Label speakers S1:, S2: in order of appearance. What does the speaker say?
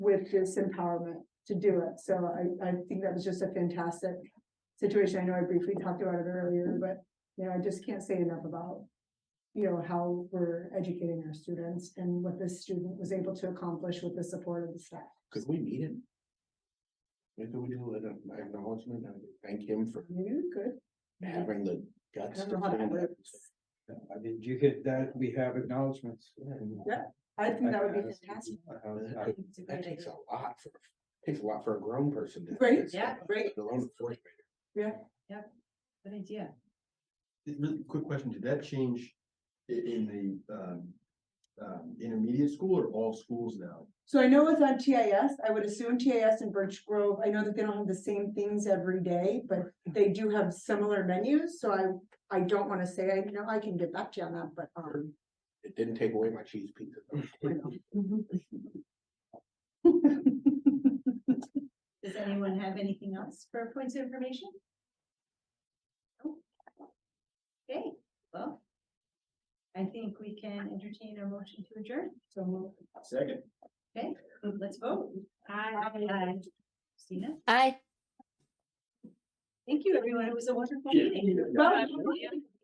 S1: with this empowerment to do it. So I, I think that was just a fantastic situation. I know I briefly talked about it earlier, but, you know, I just can't say enough about, you know, how we're educating our students and what this student was able to accomplish with the support of the staff.
S2: Could we meet him? Maybe we do an acknowledgement and thank him for
S1: You good?
S2: having the
S1: I
S2: guts.
S1: don't
S2: to
S1: know Mhm. how that
S2: do that.
S1: works.
S3: I did you hit that? We have acknowledgements.
S1: I think that would be
S3: Honestly,
S1: fantastic.
S3: I- I-
S4: It's a
S2: That
S4: great
S2: takes
S4: idea.
S2: a lot for, takes a lot for a grown person to. do
S1: Right,
S2: this
S4: yeah,
S2: stuff,
S1: right.
S2: let alone a fourth grader.
S4: Good idea.
S5: It Really quick question, did that change i- in the um um intermediate school or all schools now?
S1: So I know it's on TIS, I would assume TIS and Birch Grove, I know that they don't have the same things every day, but they do have similar menus, so I, I don't wanna say, I know I can get back to you on that, but, um.
S2: It didn't take away my cheese pizza. though.
S1: I know.
S4: Mm-hmm. Does anyone have anything else for points of information? No? Okay, well. I think we can entertain a motion to adjourn,
S1: So we'll-
S5: Second.
S4: let's vote. Aye. Christina,
S6: I
S4: thank you, everyone, it was a wonderful meeting. Bye.